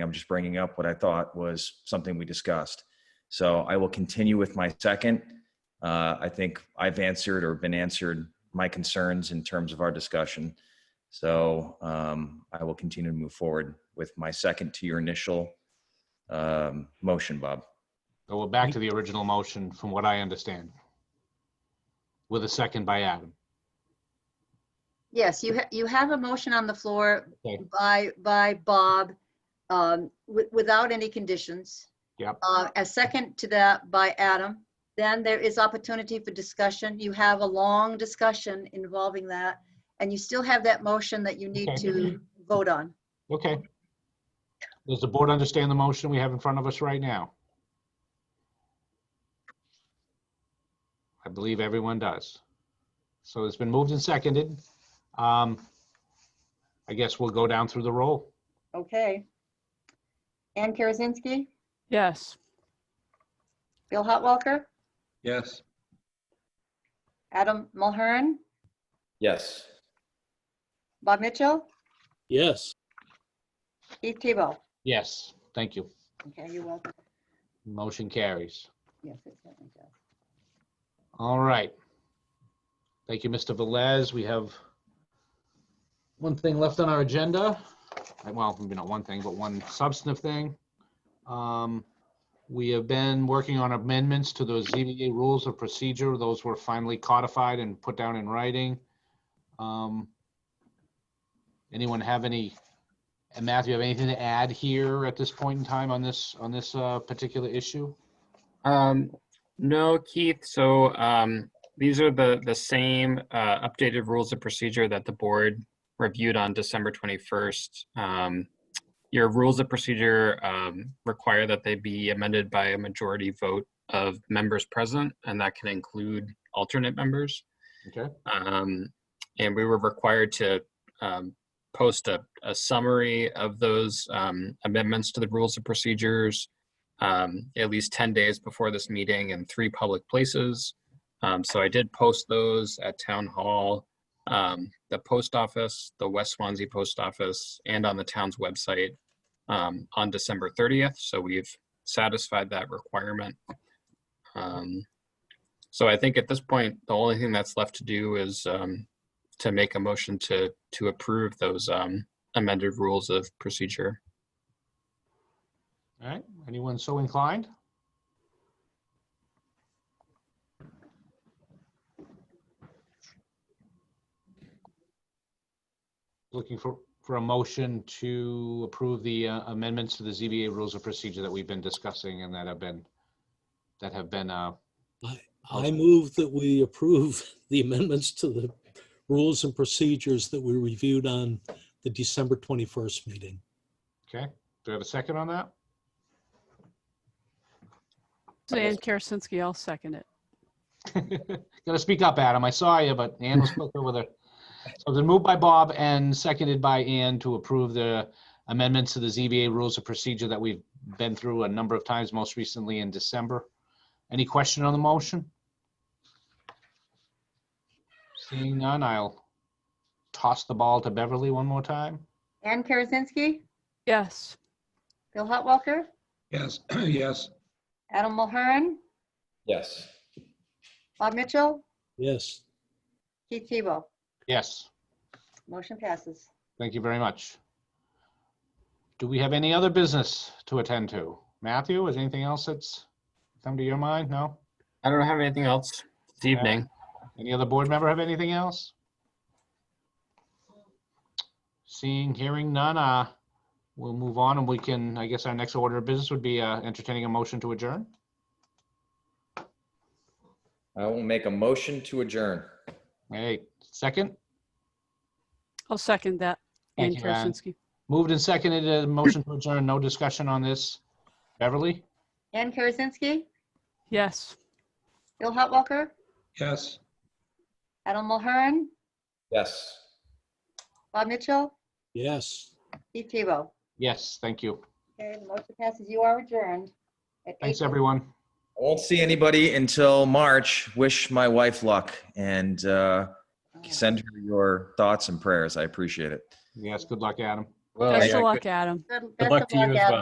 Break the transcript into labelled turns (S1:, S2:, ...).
S1: I'm just bringing up what I thought was something we discussed. So I will continue with my second. Uh, I think I've answered or been answered my concerns in terms of our discussion. So um, I will continue to move forward with my second to your initial um, motion, Bob.
S2: So we're back to the original motion, from what I understand. With a second by Adam.
S3: Yes, you, ha- you have a motion on the floor
S2: Okay.
S3: by, by Bob, um, wi- without any conditions.
S2: Yep.
S3: Uh, A second to that by Adam. Then there is opportunity for discussion. You have a long discussion involving that, and you still have that motion that you need
S2: Okay.
S3: to vote on.
S2: Okay. Does the board understand the motion we have in front of us right now? I believe everyone does. So it's been moved and seconded. Um, I guess we'll go down through the roll.
S3: Okay. Ann Karasinski,
S4: Yes.
S3: Bill Hotwalker,
S5: Yes.
S3: Adam Mulhern,
S1: Yes.
S3: Bob Mitchell,
S6: yes,
S3: Keith Tebow.
S2: Yes, thank you.
S3: Okay, you're welcome.
S2: Motion carries.
S3: Yes, it certainly does.
S2: All right. Thank you, Mr. Velez. We have one thing left on our agenda. Uh, Well, maybe not one thing, but one substantive thing. Um, We have been working on amendments to those ZBA rules of procedure. Those were finally codified and put down in writing. Um, Anyone have any, and Matthew, have anything to add here at this point in time on this, on this uh, particular issue?
S7: Um, no, Keith, so, um, these are the, the same, uh, updated rules of procedure that the board reviewed on December twenty-first. Um, your rules of procedure, um, require that they be amended by a majority vote of members present, and that can include alternate members.
S2: Okay.
S7: Um, and we were required to, um, post a, a summary of those, um, amendments to the rules of procedures um, at least 10 days before this meeting in three public places. Um, so I did post those at Town Hall, um, the post office, the West Swansea Post Office, and on the town's website um, on December 30th. So we've satisfied that requirement. Um, so I think at this point, the only thing that's left to do is um, to make a motion to to approve those um, amended rules of procedure.
S2: All right, anyone so inclined? Looking for, for a motion to approve the uh, amendments to the ZBA rules of procedure that we've been discussing and that have been, that have been, uh,
S6: I move that we approve the amendments to the rules and procedures that we reviewed on the December 21st meeting.
S2: okay, do we have a second on that?
S4: Ann Karasinski, I'll second it.
S2: Gotta speak up, Adam. I saw you, but Ann was quick over there. So then moved by Bob and seconded by Ann to approve the amendments to the ZBA rules of procedure that we've been through a number of times, most recently in December. Any question on the motion? Seeing none, I'll toss the ball to Beverly one more time.
S3: Ann Karasinski,
S4: Yes.
S3: Bill Hotwalker,
S5: Yes, yes.
S3: Adam Mulhern,
S1: Yes.
S3: Bob Mitchell,
S6: Yes.
S3: Keith Tebow.
S2: Yes,
S3: Motion passes.
S2: thank you very much. Do we have any other business to attend to? Matthew, is anything else that's come to your mind? No?
S7: I don't have anything else this evening.
S2: Any other board member have anything else? Seeing, hearing none, uh, we'll move on and we can, I guess our next order of business would be, uh, entertaining a motion to adjourn.
S1: I will make a motion to adjourn.
S2: Hey, second,
S4: I'll second that. Ann
S2: Thank you, Ann.
S4: Karasinski.
S2: moved and seconded, a motion to adjourn, no discussion on this. Beverly?
S3: Ann Karasinski,
S4: Yes.
S3: Bill Hotwalker,
S5: Yes.
S3: Adam Mulhern,
S1: Yes.
S3: Bob Mitchell,
S6: Yes.
S3: Keith Tebow.
S2: Yes, thank you.
S3: Okay, the motion passes. You are adjourned. at
S2: Thanks,
S3: 8:00.
S2: everyone.
S1: I won't see anybody until March. Wish my wife luck and uh, send her your thoughts and prayers. I appreciate it.
S2: Yes, good luck, Adam.
S4: Well,
S8: Best
S4: yeah,
S8: of luck,
S4: good-
S8: Adam.
S3: Good
S4: Good
S3: best
S4: luck
S3: of
S4: to you as
S3: Adam.
S4: well.